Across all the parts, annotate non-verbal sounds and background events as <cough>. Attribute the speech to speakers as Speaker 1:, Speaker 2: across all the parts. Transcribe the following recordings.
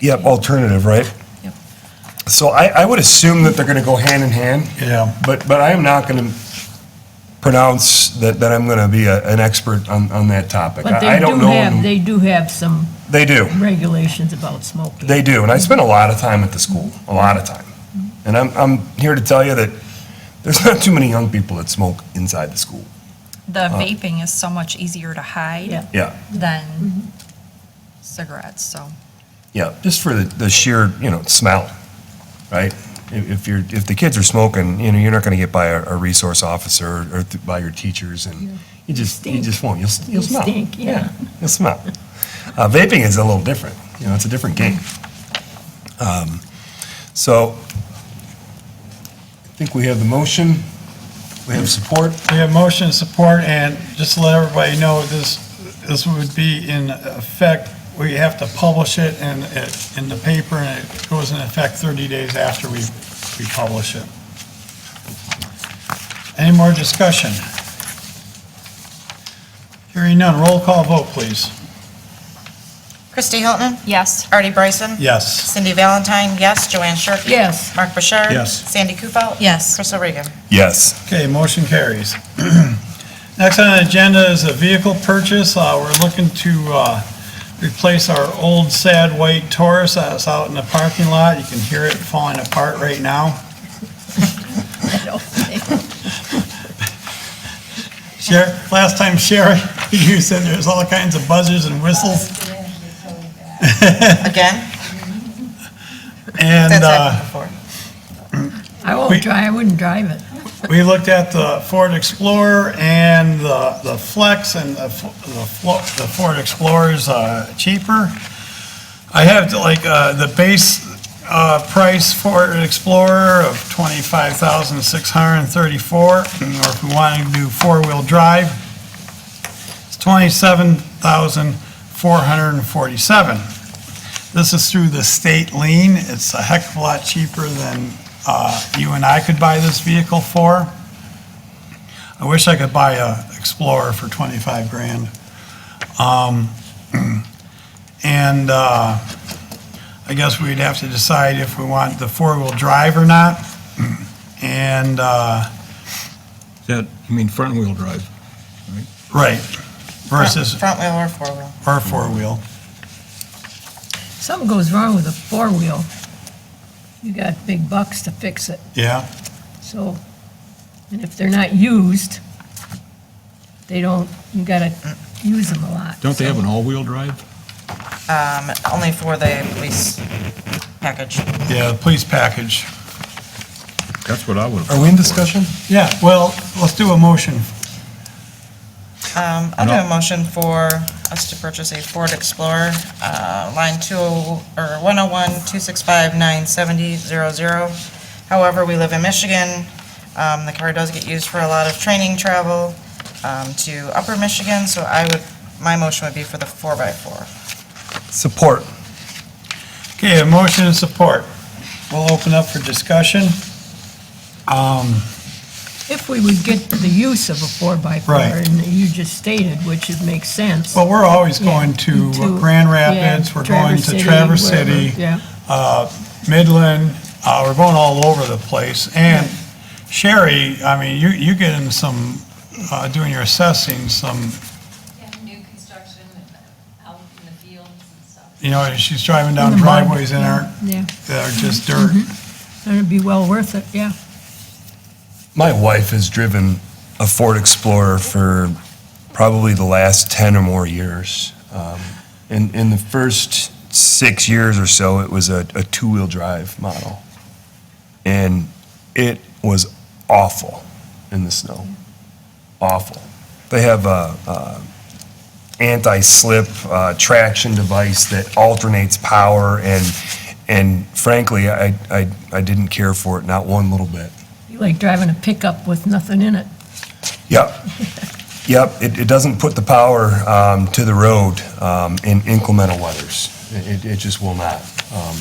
Speaker 1: Yep, alternative, right?
Speaker 2: Yep.
Speaker 1: So I, I would assume that they're gonna go hand in hand.
Speaker 3: Yeah.
Speaker 1: But, but I am not gonna pronounce that, that I'm gonna be a, an expert on, on that topic.
Speaker 4: But
Speaker 1: I
Speaker 4: they
Speaker 1: I
Speaker 4: do
Speaker 1: don't know.
Speaker 4: have, they do have some
Speaker 1: They do.
Speaker 4: regulations about smoking.
Speaker 1: They do, and I spent a lot of time at the school, a lot of time.
Speaker 4: Mm-hmm.
Speaker 1: And I'm, I'm here to tell you that there's not too many young people that smoke inside the school.
Speaker 2: The vaping is so much easier to hide
Speaker 4: Yeah.
Speaker 1: Yeah,
Speaker 2: than cigarettes, so.
Speaker 1: yeah, just for the, the sheer, you know, smell, right? If, if you're, if the kids are smoking, you know, you're not gonna get by a, a resource officer or th- by your teachers and you just, you
Speaker 4: Stink.
Speaker 1: just won't, you'll, s- you'll
Speaker 4: You
Speaker 1: smell.
Speaker 4: stink, yeah.
Speaker 1: You'll smell. Uh, vaping is a little different, you know, it's a different game. Um, So, I think we have the motion, we have support.
Speaker 3: We have motion and support, and just to let everybody know, this, this would be in effect, we have to publish it in, in the paper, and it goes in effect 30 days after we, we publish it. Any more discussion? Hearing none, roll call vote, please.
Speaker 5: Christy Hilton?
Speaker 2: Yes.
Speaker 5: Artie Bryson?
Speaker 3: Yes.
Speaker 5: Cindy Valentine, yes. Joanne Shirkey?
Speaker 4: Yes.
Speaker 5: Mark Bouchard?
Speaker 3: Yes.
Speaker 5: Sandy Kufal?
Speaker 2: Yes.
Speaker 5: Crystal Regan?
Speaker 1: Yes.
Speaker 3: Okay, motion carries. <clears throat> Next on the agenda is a vehicle purchase. Uh, We're looking to uh, replace our old sad white Taurus that's out in the parking lot. You can hear it falling apart right now. Sher- Last time Sherry, <laughs> you said there's all kinds of buzzers and whistles.
Speaker 5: Again?
Speaker 3: And
Speaker 5: That's
Speaker 3: uh,
Speaker 5: happened before.
Speaker 4: I
Speaker 3: We-
Speaker 4: won't drive, I wouldn't drive it.
Speaker 3: We looked at the Ford Explorer and the the Flex, and the F- the Flo- the Ford Explorer's uh, cheaper. I have like uh, the base uh, price Ford Explorer of $25,634, and or if we wanted to do four-wheel drive, it's $27,447. This is through the state lien. It's a heck of a lot cheaper than uh, you and I could buy this vehicle for. I wish I could buy a Explorer for 25 grand. Um, And uh, I guess we'd have to decide if we want the four-wheel drive or not. And, uh,
Speaker 6: That, you mean front-wheel drive?
Speaker 3: right, versus,
Speaker 5: Front wheel or four wheel?
Speaker 3: or four-wheel.
Speaker 4: Something goes wrong with a four-wheel, you got big bucks to fix it,
Speaker 3: Yeah,
Speaker 4: so, and if they're not used, they don't, you gotta use them a lot.
Speaker 6: Don't they have
Speaker 4: so-
Speaker 6: an all-wheel drive?
Speaker 5: Um, only for the police package.
Speaker 3: yeah, police package.
Speaker 6: That's what I would have.
Speaker 1: Are we in discussion?
Speaker 3: Yeah, well, let's do a motion.
Speaker 5: Um, I'll do a motion for us to purchase a Ford Explorer, uh, line two, or one oh one, two six five, nine seventy, zero zero. However, we live in Michigan. Um, the car does get used for a lot of training travel, um, to Upper Michigan, so I would, my motion would be for the four by four.
Speaker 1: Support.
Speaker 3: Okay, a motion and support. We'll open up for discussion. Um,
Speaker 4: If we would get the use of a four-by-four,
Speaker 3: Right.
Speaker 4: and you just stated, which it makes sense.
Speaker 3: Well, we're always going
Speaker 4: yeah,
Speaker 3: to Grand
Speaker 4: yeah,
Speaker 3: Rapids, we're going to
Speaker 4: Traverse
Speaker 3: Traverse
Speaker 4: wherever,
Speaker 3: City,
Speaker 4: Yeah,
Speaker 3: uh, Midland, uh, we're going all over the place. And Sherry, I mean, you, you get in some, uh, doing your assessing, some,
Speaker 7: And new construction and out in the fields and stuff.
Speaker 3: you know, she's driving down
Speaker 4: In the mud.
Speaker 3: driveways that aren't,
Speaker 4: yeah,
Speaker 3: that are just dirt.
Speaker 4: and it'd be well worth it, yeah.
Speaker 1: My wife has driven a Ford Explorer for probably the last 10 or more years. Um, In, in the first six years or so, it was a, a two-wheel drive model. And it was awful in the snow. Awful. They have a, a anti-slip uh, traction device that alternates power and, and frankly, I, I, I didn't care for it, not one little bit.
Speaker 4: Be like driving a pickup with nothing in it.
Speaker 1: Yep. Yep, it, it doesn't put the power um, to the road um, in inclemental weathers. It, it- it just will not. Um,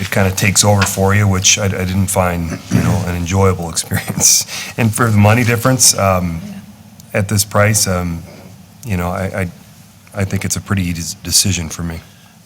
Speaker 1: It kind of takes over for you, which I, I didn't find, you know, an enjoyable <laughs> experience. And for the money difference, um, at this price, um, you know, I, I, I think it's a pretty easy decision for me.